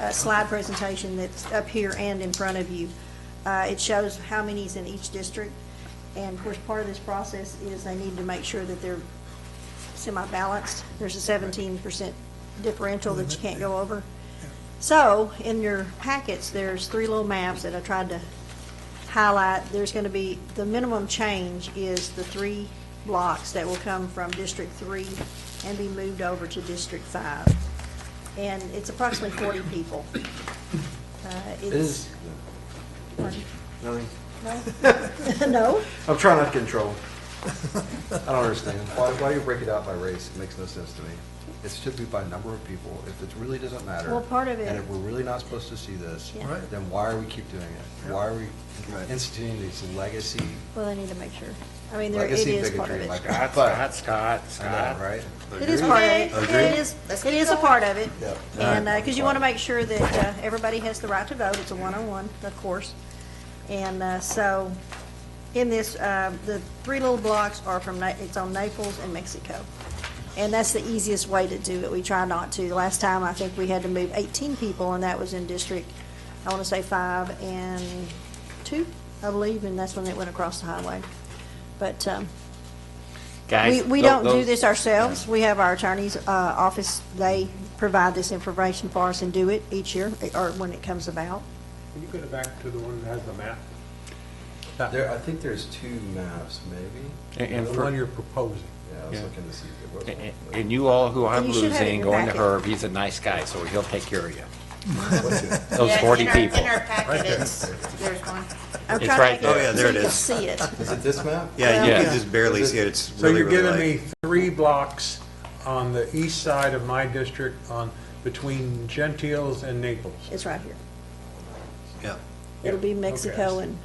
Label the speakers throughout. Speaker 1: uh, slide presentation that's up here and in front of you. Uh, It shows how many's in each district, and of course, part of this process is they need to make sure that they're semi-balanced. There's a seventeen percent differential that you can't go over. So, in your packets, there's three little maps that I tried to highlight. There's going to be, the minimum change is the three blocks that will come from District Three and be moved over to District Five. And it's approximately forty people. Uh, It's,
Speaker 2: Is,
Speaker 1: pardon?
Speaker 2: nothing,
Speaker 1: no, no,
Speaker 2: I'm trying not to control. I don't understand. Why, why do you break it out by race? It makes no sense to me. It should be by number of people. If it really doesn't matter.
Speaker 1: Well, part of it-
Speaker 2: And if we're really not supposed to see this,
Speaker 1: Yeah. Right.
Speaker 2: then why are we keep doing it? Why are we instituting these legacy,
Speaker 1: well, I need to make sure. I mean, there, it
Speaker 2: legacy
Speaker 1: is part of
Speaker 2: bigotry
Speaker 1: it.
Speaker 2: like that?
Speaker 3: Scott,
Speaker 2: But,
Speaker 3: Scott, Scott,
Speaker 2: I know,
Speaker 3: Scott.
Speaker 2: right?
Speaker 1: It is part of it. It
Speaker 2: Agreed.
Speaker 1: is, it is a part of it.
Speaker 2: Yep.
Speaker 1: And,
Speaker 2: Alright.
Speaker 1: because you want to make sure that uh, everybody has the right to vote. It's a one-on-one, of course. And uh, so, in this, uh, the three little blocks are from, Na- it's on Naples and Mexico. And that's the easiest way to do it. We try not to. The Last time, I think we had to move 18 people, and that was in District, I want to say five and two, I believe, and that's when it went across the highway. But, um, we,
Speaker 3: Guys,
Speaker 1: we
Speaker 3: tho-
Speaker 1: don't do
Speaker 3: those-
Speaker 1: this ourselves. We have our attorney's uh, office, they provide this information for us and do it each year, or when it comes about.
Speaker 4: Can you go back to the one that has the map?
Speaker 2: There, I think there's two maps, maybe?
Speaker 3: And- and
Speaker 4: The
Speaker 3: for-
Speaker 4: one you're proposing.
Speaker 2: Yeah, I was
Speaker 3: Yeah.
Speaker 2: looking to see if there was.
Speaker 3: And-
Speaker 2: one.
Speaker 3: And you all who I'm
Speaker 1: You should have it in
Speaker 3: losing,
Speaker 1: your
Speaker 3: going to
Speaker 1: packet.
Speaker 3: Herb, he's a nice guy, so he'll take care of you.
Speaker 2: What's it?
Speaker 3: Those
Speaker 5: Yeah, in
Speaker 3: 40
Speaker 5: our-
Speaker 3: people.
Speaker 5: In our packet, it's, there's one.
Speaker 1: I'm trying
Speaker 3: It's
Speaker 1: to
Speaker 3: right
Speaker 1: make it
Speaker 3: there. Oh, yeah,
Speaker 5: there it is.
Speaker 1: So you can see it.
Speaker 2: Is it this map?
Speaker 6: Yeah,
Speaker 1: Yeah.
Speaker 6: you can just barely see it, it's
Speaker 4: So
Speaker 6: really,
Speaker 4: you're
Speaker 6: really
Speaker 4: giving
Speaker 6: light.
Speaker 4: me three blocks on the east side of my district on, between Gentiles and Naples.
Speaker 1: It's right here.
Speaker 6: Yeah.
Speaker 1: It'll be Mexico
Speaker 4: Okay.
Speaker 1: and,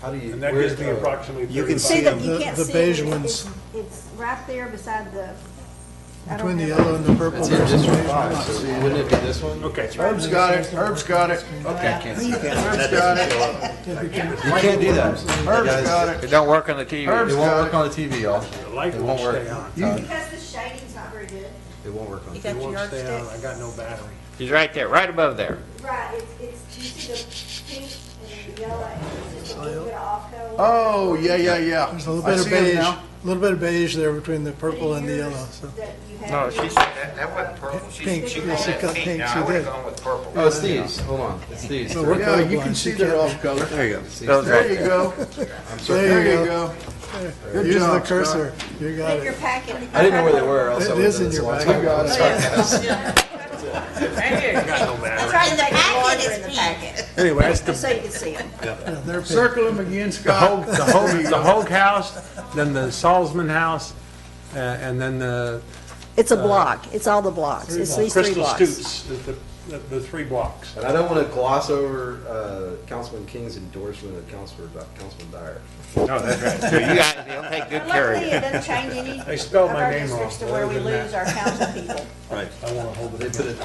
Speaker 2: How do you?
Speaker 4: And that
Speaker 2: where's
Speaker 4: gives me
Speaker 2: the-
Speaker 4: approximately
Speaker 6: You can
Speaker 1: see
Speaker 6: See
Speaker 1: that,
Speaker 6: them.
Speaker 1: you
Speaker 7: The-
Speaker 1: can't see
Speaker 7: the
Speaker 1: it.
Speaker 7: beige
Speaker 1: It's-
Speaker 7: ones.
Speaker 1: It's right there beside the. I don't
Speaker 7: Between the
Speaker 1: have-
Speaker 7: yellow and the purple.
Speaker 2: It's in District Five, so wouldn't it be this one?
Speaker 4: Okay.
Speaker 7: Herb's got it, Herb's got it.
Speaker 2: Okay, I can't see that.
Speaker 6: That doesn't show up.
Speaker 2: You can't do that.
Speaker 7: Herb's
Speaker 2: Guys,
Speaker 7: got
Speaker 3: It don't work on the TV.
Speaker 7: Herb-
Speaker 2: It won't work on the TV, y'all.
Speaker 4: The light
Speaker 2: It won't
Speaker 4: won't
Speaker 2: work.
Speaker 4: stay on.
Speaker 1: Because the shading's not very good.
Speaker 2: It won't work on.
Speaker 5: You
Speaker 2: TV.
Speaker 4: It
Speaker 5: got your
Speaker 4: won't stay on, I
Speaker 5: yardstick?
Speaker 4: got no battery.
Speaker 3: He's right there, right above there.
Speaker 1: Right, it's, it's, you see the pink and the yellow, and it's just a little bit off color.
Speaker 8: Oh, yeah, yeah, yeah.
Speaker 7: There's a little
Speaker 8: I
Speaker 7: bit of
Speaker 8: see 'em
Speaker 7: beige,
Speaker 8: now.
Speaker 7: a little bit of beige there between the purple and the yellow, so.
Speaker 1: No,
Speaker 3: that wasn't purple.
Speaker 7: Pink, she got pink, she did.
Speaker 3: with purple.
Speaker 2: Oh, it's these, hold on, it's these.
Speaker 7: So we're
Speaker 8: Yeah, you can
Speaker 7: colorblind, she
Speaker 8: see they're
Speaker 7: can't-
Speaker 8: off color.
Speaker 6: There you go.
Speaker 2: It's these.
Speaker 3: Those
Speaker 8: There you go. There you go. Good
Speaker 7: Use the
Speaker 8: job, Scott.
Speaker 7: cursor, you got
Speaker 1: In your
Speaker 7: it.
Speaker 1: packet.
Speaker 2: I didn't know where they were, else I
Speaker 7: It
Speaker 2: would've
Speaker 7: is
Speaker 2: done
Speaker 7: in
Speaker 2: this a
Speaker 7: your
Speaker 2: long
Speaker 7: bag.
Speaker 2: time ago.
Speaker 8: got it.
Speaker 1: I tried to make it larger
Speaker 5: Packet
Speaker 1: in the
Speaker 5: is
Speaker 1: packet,
Speaker 4: Anyway, that's the,
Speaker 1: so you could see it.
Speaker 7: Yeah, they're pink.
Speaker 8: Circle them again,
Speaker 4: the Hoag,
Speaker 8: Scott.
Speaker 4: the Hoag, the Hoag House, then the Salzman House, uh, and then the
Speaker 1: It's a block, it's all the blocks, it's these three
Speaker 4: Crystal
Speaker 1: blocks.
Speaker 4: Stutes, the, the, the three blocks.
Speaker 2: And I don't wanna gloss over, uh, Councilman King's endorsement of Councilman, Councilman Dyer.
Speaker 3: So you guys, he'll take good care of
Speaker 1: Luckily,
Speaker 3: you.
Speaker 1: it doesn't change any
Speaker 4: They
Speaker 1: of
Speaker 4: spelled my
Speaker 1: our
Speaker 4: name wrong,
Speaker 1: districts to where we
Speaker 4: other than
Speaker 1: lose our council people.
Speaker 4: I want to hold it.
Speaker 2: They put it,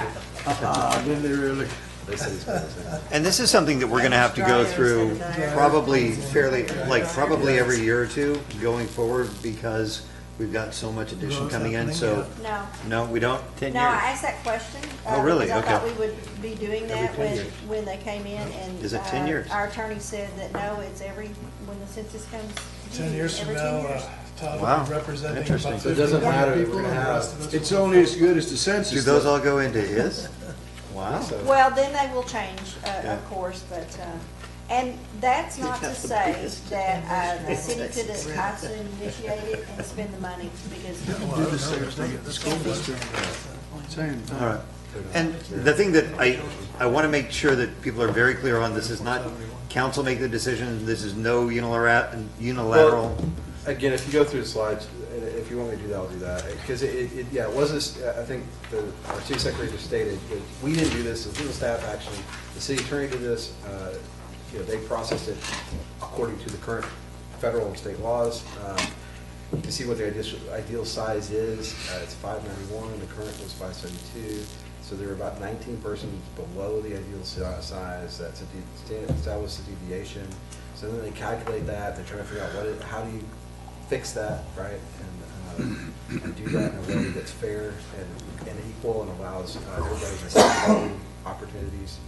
Speaker 8: Ah, did they really?
Speaker 2: they said it's.
Speaker 6: And this is something that we're gonna have to go through probably fairly, like, probably every year or two going forward because we've got so much addition
Speaker 7: Growth
Speaker 6: coming in,
Speaker 7: happening,
Speaker 6: so,
Speaker 1: No,
Speaker 6: no, we don't? Ten
Speaker 1: no, I asked that question. uh,
Speaker 6: Oh, really?
Speaker 1: because I thought
Speaker 6: Okay.
Speaker 1: we would be doing that when, when they came in and.
Speaker 6: Is it
Speaker 1: uh,
Speaker 6: 10 years?
Speaker 1: Our attorney said that no, it's every, when the census comes.
Speaker 7: Ten
Speaker 1: due,
Speaker 7: years from
Speaker 1: every
Speaker 7: now,
Speaker 1: 10
Speaker 7: uh,
Speaker 1: years.
Speaker 7: Todd
Speaker 6: Wow.
Speaker 7: will be representing about
Speaker 6: Interesting.
Speaker 2: So it
Speaker 7: fifteen
Speaker 2: doesn't matter
Speaker 7: hundred
Speaker 2: if
Speaker 7: people
Speaker 2: we're
Speaker 7: and
Speaker 2: gonna
Speaker 7: the rest
Speaker 2: have,
Speaker 7: of us.
Speaker 8: It's only as good as the census.
Speaker 6: Do those all go into his? Wow.
Speaker 1: Well, then they will change, uh,
Speaker 6: Yeah.
Speaker 1: of course, but, uh, and that's not to say that uh, the city could have also initiated it and spend the money, because
Speaker 7: Do the same thing at the school bus.
Speaker 8: Same thing.
Speaker 6: All right. And the thing that I, I want to make sure that people are very clear on, this is not council make the decision, this is no unilara- unilateral.
Speaker 2: Well, Again, if you go through the slides, and if you want me to do that, I'll do that, because it, it, yeah, it wasn't, I think the, our chief secretary just stated, that we didn't do this, it was the staff action, the city attorney did this, uh, you know, they processed it according to the current federal and state laws, um, to see what the ideal, ideal size is, uh, it's five ninety-one, the current was five seventy-two, so they're about nineteen persons below the ideal si- size, that's a, de- that was a deviation, so then they calculate that, they're trying to figure out what it, how do you fix that, right? And, uh, and do that in a way that's fair and, and equal and allows uh, everybody to see opportunities